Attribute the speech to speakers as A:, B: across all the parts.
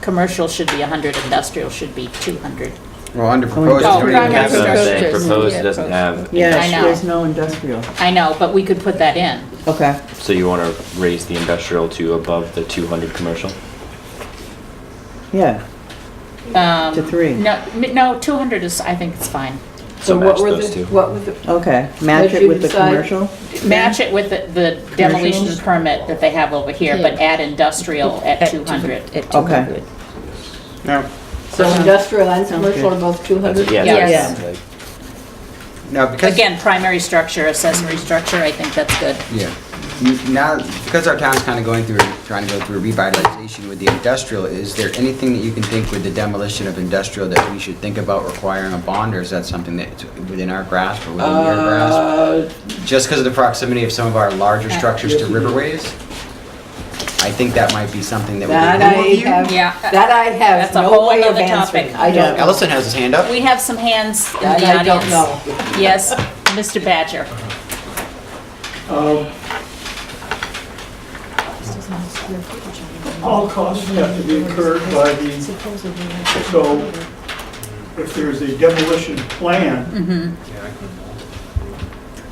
A: commercial should be 100, industrial should be 200.
B: Well, under proposed,
A: Oh,
B: you don't even
A: under
B: have
A: proposed.
B: that.
C: Proposed
D: Yeah,
C: doesn't have,
A: I
E: Yeah,
A: know.
E: there's no industrial.
A: I know, but we could put that in.
E: Okay.
C: so you want to raise the industrial to above the 200 commercial?
E: Yeah.
A: Um,
E: To three.
A: No, m- no, 200 is, I think it's fine.
C: So
F: So
C: match
F: what were
C: those
F: the,
C: two.
F: what were the,
E: Okay. Match
F: Let
E: it
F: you
E: with the
F: decide.
E: commercial.
A: Match it with the- the demolition permit that they have over here, but
D: Yeah.
A: add industrial at 200.
D: At 200.
B: Now,
F: so industrial and commercial are both
C: That's it,
F: 200?
C: Yeah.
D: Yes.
C: that's-
B: now because,
A: Again, primary structure, accessory structure, I think that's good.
B: yeah, You- now, because our town's kind of going through, trying to go through revitalization with the industrial, is there anything that you can think with the demolition of industrial that we should think about requiring a bond, or is that something that's within our grasp or within your grasp?
F: Uh,
B: Just because of the proximity of some of our larger structures to riverways? I think that might be something that
F: That
B: we.
F: I have,
A: Yeah.
F: that I have
A: That's a
F: no
A: whole
F: way of
A: other
F: answering.
A: topic.
F: I don't know.
B: Ellison has his hand up.
A: We have some hands in the
F: I
A: audience.
F: I don't know.
A: Yes, Mr. Badger.
G: Um, All costs have to be incurred by the, so if there's a demolition plan,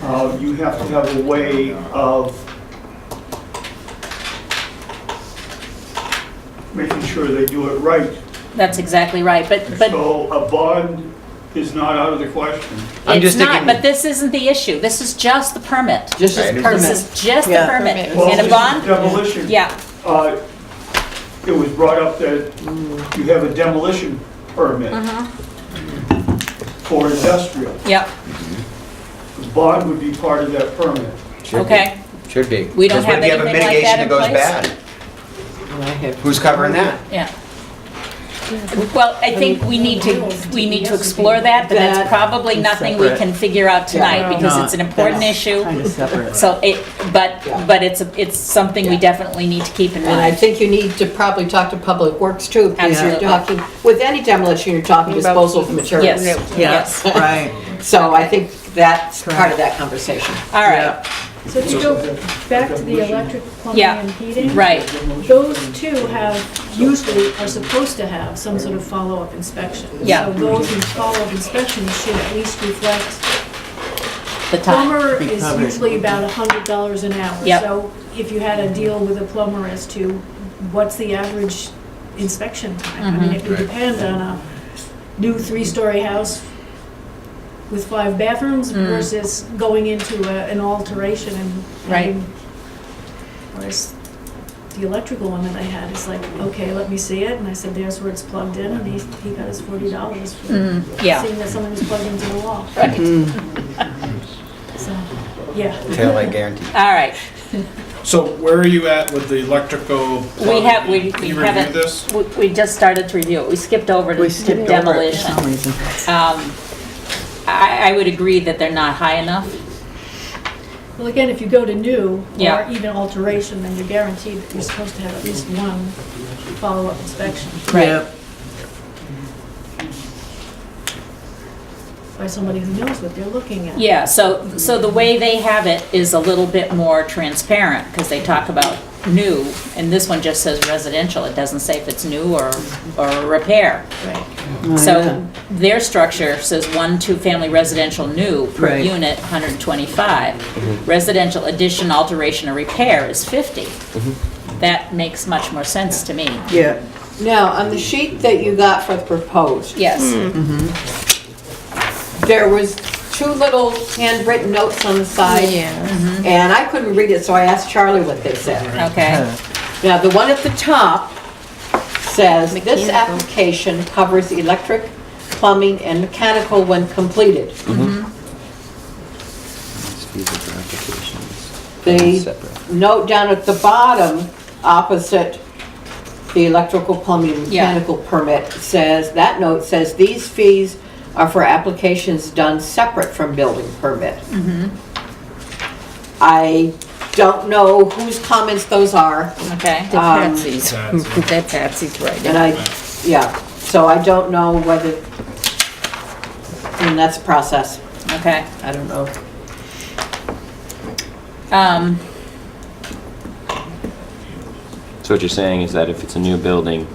G: uh, you have to have a way of making sure they do it right.
A: That's exactly right, but, but
G: So a bond is not out of the question.
B: I'm
A: it's
B: just
A: not,
B: thinking-
A: but this isn't the issue. This is just the permit.
F: Just
B: Right.
F: as
A: This
F: permit.
A: is just the
E: Yeah.
A: permit.
G: Well,
A: And a
G: this
A: bond,
G: Demolition.
A: yeah,
G: Uh, It was brought up that you have a demolition permit for industrial.
A: yeah,
G: The bond would be part of that permit.
B: Should be.
A: okay.
B: Should be.
A: We don't
B: Because what
A: have
B: if you a
A: anything like
B: mitigation
A: that in
B: goes
A: place?
B: bad?
F: And I have-
B: Who's covering that?
A: Yeah. Well, I think we need to, we need to explore that, but that's
F: That
A: probably
E: is
A: nothing we
E: separate.
A: can figure out tonight because it's an important issue.
E: Kind of separate.
A: So it, but,
F: Yeah.
A: but it's, a- it's something we
F: Yeah.
A: definitely need to keep in
F: And I
A: mind.
F: think you need to probably talk to Public Works too. because You're
A: Absolutely.
F: talking, with any demolition, you're talking disposal of
A: Yes,
F: materials.
A: yes.
E: Right.
F: So I think that's part of that conversation.
A: All right,
D: So to go back to the electric, plumbing
A: Yeah.
D: and heating.
A: right.
D: Those two have, usually are supposed to have some sort of follow-up inspection.
A: Yeah.
D: So those in follow-up inspections should at least reflect,
A: The time.
D: plumber is
E: Recovered.
D: usually about a hundred dollars an hour.
A: Yep.
D: So if you had a deal with a plumber as to what's the average inspection time?
A: Mm-hmm.
D: I mean, it would
B: Right.
D: depend on a new three-story house with five bathrooms
A: Mm.
D: versus going into a- an alteration and
A: Right.
D: having Whereas the electrical one that I had is like, okay, let me see it, and I said, there's where it's plugged in, and he, he got his forty dollars for seeing
A: Mm, Yeah,
D: that something was plugged into the wall,
A: right.
D: so, yeah.
B: Tail light guarantee.
A: All right.
H: So where are you at with the electrical?
G: Um,
A: We have, we we
H: You reviewed this?
A: haven't, we- we just started to review it. We skipped over to
E: We skipped
A: to
E: over it for
A: demolition.
E: some reason.
A: Um, I, I would agree that they're not high enough.
D: Well, again, if you go to new, or
A: Yeah.
D: even alteration, then you're guaranteed that you're supposed to have at least one follow-up inspection
E: Right.
D: by somebody who knows what they're looking at.
A: Yeah, so, so the way they have it is a little bit more transparent, because they talk about new, and this one just says residential, it doesn't say if it's new or, or repair.
D: Right.
A: So their structure says one, two-family residential new per
E: Right.
A: unit, 125. Residential addition, alteration, or repair is 50. That makes much more sense to me.
E: Yeah.
F: Now, on the sheet that you got for the proposed,
A: Yes,
F: there was two little handwritten notes on the side. And I couldn't read it, so I asked Charlie what they said.
A: okay,
F: Now, the one at the top says, "This application covers electric, plumbing, and mechanical when completed." The note down at the bottom, opposite the electrical, plumbing, and
A: Yeah.
F: mechanical permit, says, that note says, "These fees are for applications done separate from building permit." I don't know whose comments those are.
A: okay.
F: Um,
E: Patsy's.
H: That's-
E: That's Patsy's right.
F: And I, yeah, so I don't know whether, and that's a process,
A: Okay.
F: I don't know.
A: Um,
C: So what you're saying is that if it's a new building,